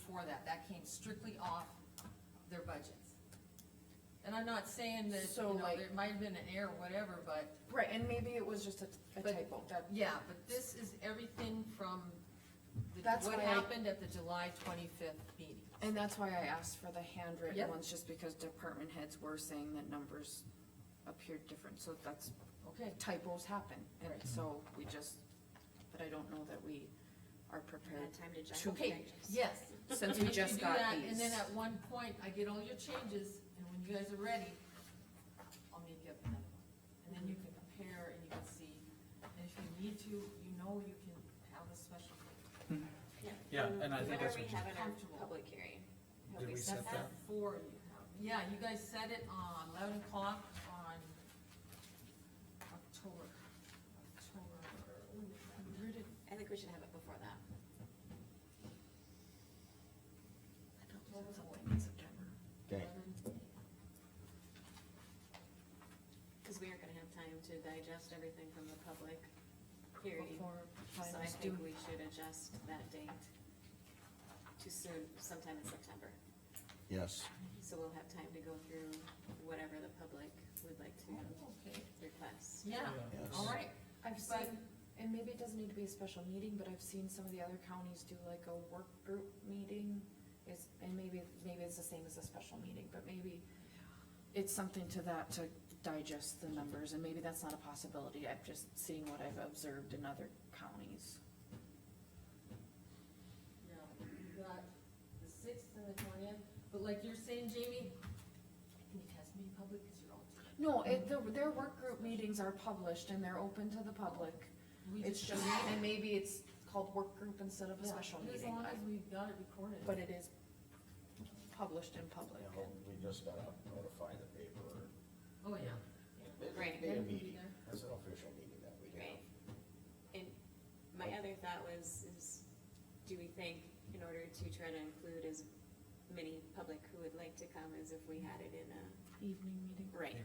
before that, that came strictly off their budgets. And I'm not saying that, you So, know, like- there might have been an error, whatever, but, Right, and maybe it was just a- a But- typo, that, yeah, but this is everything from the, That's what why I- happened at the July twenty-fifth meeting. and that's why I asked for the handwritten Yep. ones, just because department heads were saying that numbers appeared different, so that's, Okay, typos happen, and Right. so we just, but I don't know that we are prepared. Had time to Two check. okay, yes. Since If we you just do got that, these. And then at one point, I get all your changes, and when you guys are ready, I'll make you up another one. And then you can compare and you can see, and if you need to, you know you can have a special. Yeah, and I think that's Whenever we what have in our comfortable. public hearing. Have Did we set set that? Four you have, yeah, you guys set it on eleven o'clock on October, October. Where did- I think we should have it before that. what was it? Okay, 11? Cause we aren't gonna have time to digest everything from the public hearing. Before So I finals think due. we should adjust that date to soon, sometime in September. yes. Mm-hmm. So we'll have time to go through whatever the public would like to Oh, Okay, request. yeah, Yes. all right, I've but, seen, and maybe it doesn't need to be a special meeting, but I've seen some of the other counties do like a work group meeting. Is, and maybe, maybe it's the same as a special meeting, but maybe it's something to that to digest the numbers, and maybe that's not a possibility. I'm just seeing what I've observed in other counties. yeah, you got the sixth and the twentieth, but like you're saying, Jamie, can you test me in public, cause you're all. No, it, the, their work group meetings are published and they're open to the public. We It's just, and maybe it's called work group instead of a Yeah, special As meeting, long as I- we've got it recorded. but it is published in public. We just gotta notify the paper. Oh, yeah. Right. Be a Then we'll be meeting, there. that's an official meeting that we Right. have. And my other thought was, is do we think in order to try to include as many public who would like to come as if we had it in a, Evening meeting right,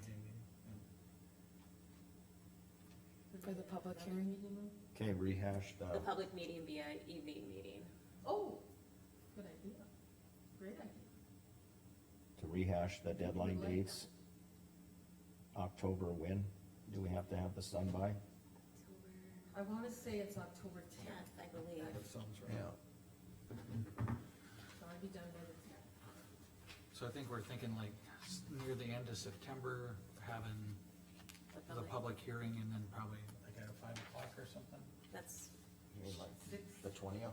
for the public Another hearing. meeting room? Okay, rehash the the, public meeting be a evening meeting. Oh, good idea. Great idea. to rehash the deadline dates. October when? Do we have to have this done by? October I wanna say it's October tenth, tenth, I believe. that sounds right. Yeah. so I'd be done by the tenth. So I think we're thinking like s- near the end of September, having the public hearing and then probably like at five o'clock or something. That's, You mean like Six, the twentieth?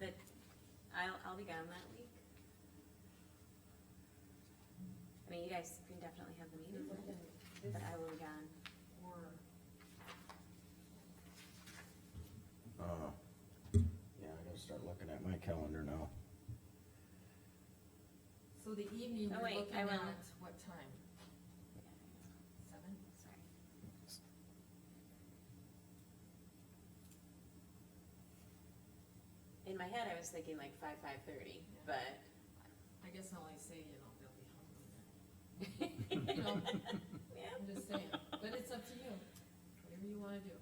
that, I'll, I'll be gone that week. I mean, you guys can definitely have the meeting, but I will be gone. or, Uh, yeah, I gotta start looking at my calendar now. so the evening, Oh, you're wait, looking I at will. what time? Seven? Sorry. In my head, I was thinking like five, five thirty, but I guess I'll only say, you know, they'll be hungry then. You know, yeah, I'm just saying, but it's up to you, whatever you wanna do.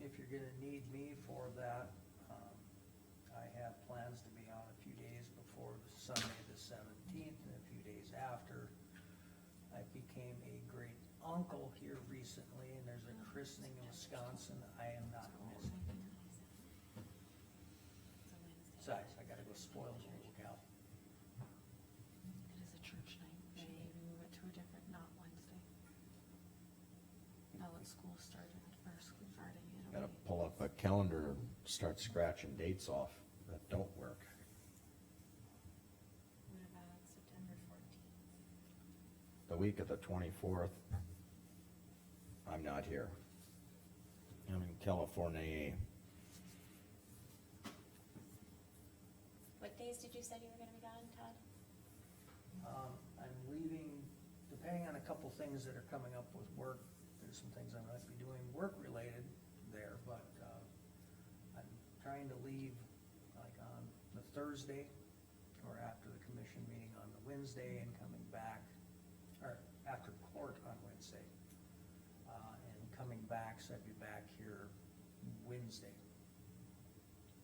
if you're gonna need me for that, um, I have plans to be on a few days before the Sunday the seventeenth and a few days after. I became a great uncle here recently and there's a christening in Wisconsin. I am not missing. Besides, I gotta go spoil the little gal. It is a church night, should we maybe move it to a different, not Wednesday? Now that school started, or school starting, it'll Gotta be, pull up a calendar and start scratching dates off that don't work. What about September fourteenth? The week of the twenty-fourth, I'm not here. I'm in California. What days did you say you were gonna be gone, Todd? Um, I'm leaving, depending on a couple things that are coming up with work, there's some things I might be doing work-related there, but, uh, I'm trying to leave like on the Thursday or after the commission meeting on the Wednesday and coming back, or after court on Wednesday. Uh, and coming back, so I'd be back here Wednesday.